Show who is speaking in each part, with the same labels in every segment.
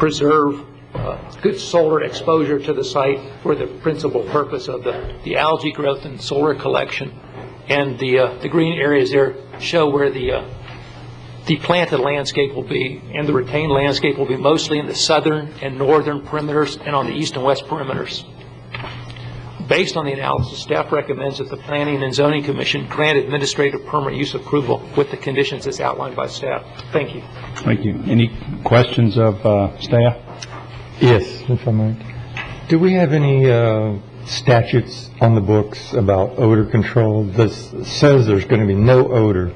Speaker 1: preserve uh, good solar exposure to the site for the principal purpose of the the algae growth and solar collection. And the, uh, the green areas there show where the, uh, the planted landscape will be, and the retained landscape will be mostly in the southern and northern perimeters and on the east and west perimeters. Based on the analysis, staff recommends that the Planning and Zoning Commission grant administrative permit use approval with the conditions as outlined by staff. Thank you.
Speaker 2: Thank you. Any questions of uh, staff?
Speaker 3: Yes, if I might. Do we have any uh, statutes on the books about odor control? This says there's going to be no odor.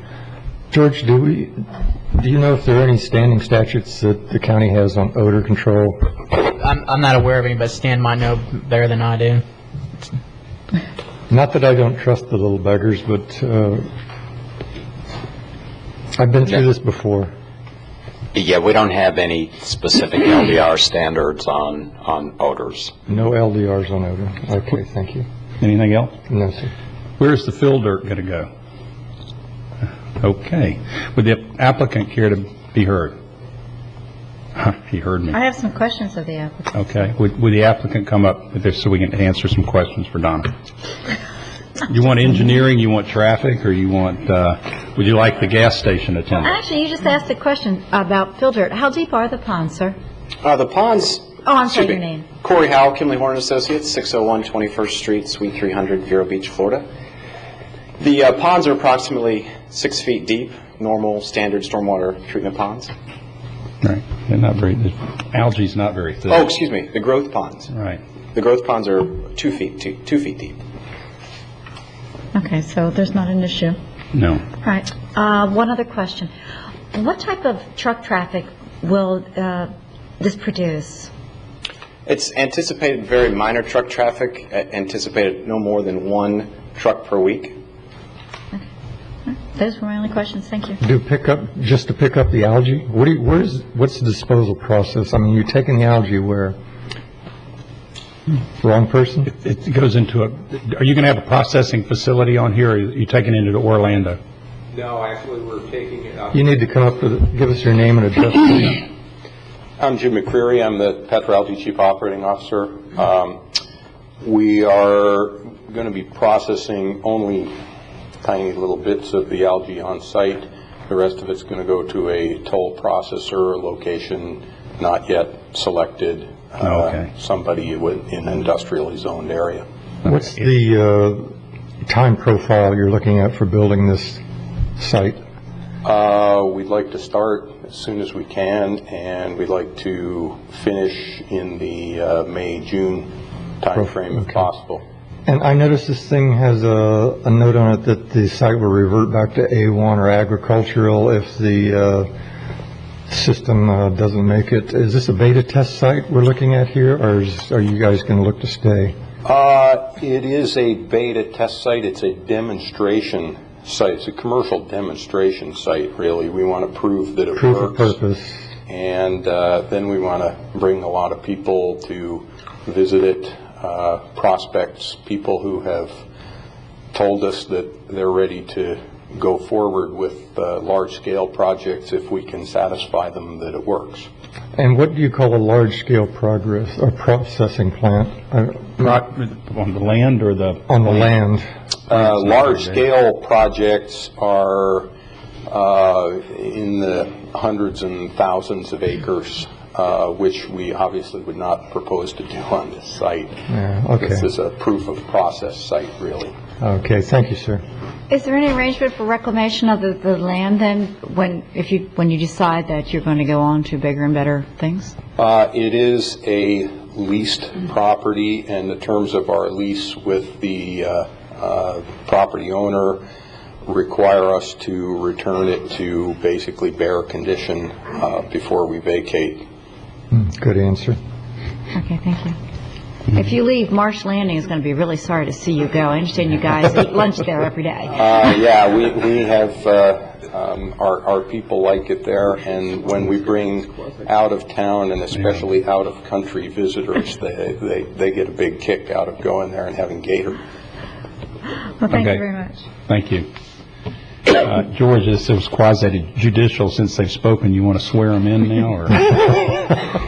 Speaker 3: George, do we, do you know if there are any standing statutes that the county has on odor control?
Speaker 4: I'm, I'm not aware of any, but Stan might know better than I do.
Speaker 3: Not that I don't trust the little beggars, but uh, I've been through this before.
Speaker 5: Yeah, we don't have any specific LDR standards on, on odors.
Speaker 3: No LDRs on odor. Okay, thank you.
Speaker 2: Anything else?
Speaker 3: No, sir.
Speaker 2: Where's the fill dirt going to go? Okay. Would the applicant care to be heard? Huh, He heard me.
Speaker 6: I have some questions of the applicant.
Speaker 2: Okay. Would would the applicant come up with this so we can answer some questions for Donna? You want engineering, you want traffic, or you want, uh, would you like the gas station
Speaker 7: Uh,
Speaker 2: attendant?
Speaker 6: Actually, you just asked a question about fill dirt. How deep are the ponds, sir?
Speaker 7: Uh, The ponds.
Speaker 6: Oh, I'm sorry,
Speaker 7: excuse
Speaker 6: your
Speaker 7: me.
Speaker 6: name.
Speaker 7: Corey Howell, Kimley Horn Associates, 601 21st Street, Suite 300, Vero Beach, Florida. The uh, ponds are approximately six feet deep, normal, standard stormwater treatment ponds.
Speaker 2: Right. They're not very, the algae's not very thick.
Speaker 7: Oh, excuse me, the growth ponds.
Speaker 2: Right.
Speaker 7: The growth ponds are two feet, two two feet deep.
Speaker 6: Okay, so there's not an issue.
Speaker 2: No.
Speaker 6: All right, uh, one other question. What type of truck traffic will uh, this produce?
Speaker 7: It's anticipated very minor truck traffic, a- anticipated no more than one truck per week.
Speaker 6: Those were my only questions, thank you.
Speaker 3: Do pick up, just to pick up the algae? What do you, where's, what's the disposal process? I mean, you're taking the algae where? Wrong person?
Speaker 2: It goes into a, are you going to have a processing facility on here, or are you taking it into Orlando?
Speaker 8: No, actually, we're taking it up.
Speaker 3: You need to come up with, give us your name and address.
Speaker 8: I'm Jim McCreary, I'm the Petroalgae Chief Operating Officer. Um, We are going to be processing only tiny little bits of the algae on site. The rest of it's going to go to a toll processor location not yet selected.
Speaker 2: Oh, okay.
Speaker 8: uh, Somebody with- in an industrially zoned area.
Speaker 3: What's the uh, time profile you're looking at for building this site?
Speaker 8: Uh, We'd like to start as soon as we can, and we'd like to finish in the uh, May, June timeframe
Speaker 3: Okay.
Speaker 8: if possible.
Speaker 3: And I noticed this thing has a, a note on it that the site will revert back to A1 or agricultural if the uh, system uh, doesn't make it. Is this a beta test site we're looking at here, or is, are you guys going to look to stay?
Speaker 8: Uh, It is a beta test site, it's a demonstration site, it's a commercial demonstration site, really. We want to prove that it works.
Speaker 3: Proof of purpose.
Speaker 8: And uh, then we want to bring a lot of people to visit it, uh, prospects, people who have told us that they're ready to go forward with uh, large-scale projects if we can satisfy them that it works. Uh,
Speaker 3: And what do you call a large-scale progress, or processing plant? Uh,
Speaker 2: On the land or the?
Speaker 3: On the land,
Speaker 8: Uh, Large-scale projects are uh, in the hundreds and thousands of acres, uh, which we obviously would not propose to do on this site.
Speaker 3: Yeah, okay.
Speaker 8: This is a proof of process site, really.
Speaker 3: Okay, thank you, sir.
Speaker 6: Is there any arrangement for reclamation of the, the land then, when, if you, when you decide that you're going to go on to bigger and better things?
Speaker 8: Uh, It is a leased property, and the terms of our lease with the uh, uh, property owner require us to return it to basically bare condition uh, before we vacate.
Speaker 3: Mm, Good answer.
Speaker 6: Okay, thank you. If you leave, Marsh Landing is going to be really sorry to see you go. I understand you guys eat lunch there every day.
Speaker 8: Uh, Yeah, we we have, uh, um, our our people like it there, and when we bring out-of-town and especially out-of-country visitors, they they they get a big kick out of going there and having gator.
Speaker 6: Well, thank you
Speaker 2: Okay.
Speaker 6: very much.
Speaker 2: Thank you. Uh, George, this is quasi judicial, since they've spoken, you want to swear them in now, or?